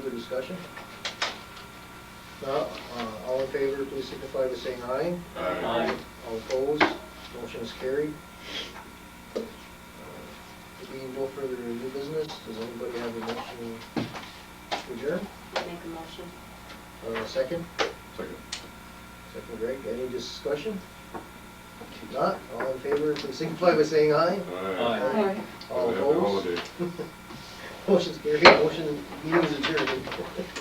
Further discussion? Not, uh, all in favor, please signify by saying aye. Aye. All opposed, motion is carried. Uh, There being no further new business, does anybody have a motion to adjourn? Make a motion. Uh, second, Second. second Greg, any discussion? Not, all in favor, please signify by saying aye. Aye. Aye. All Happy opposed? holiday. Motion's carried, motion, meeting's adjourned.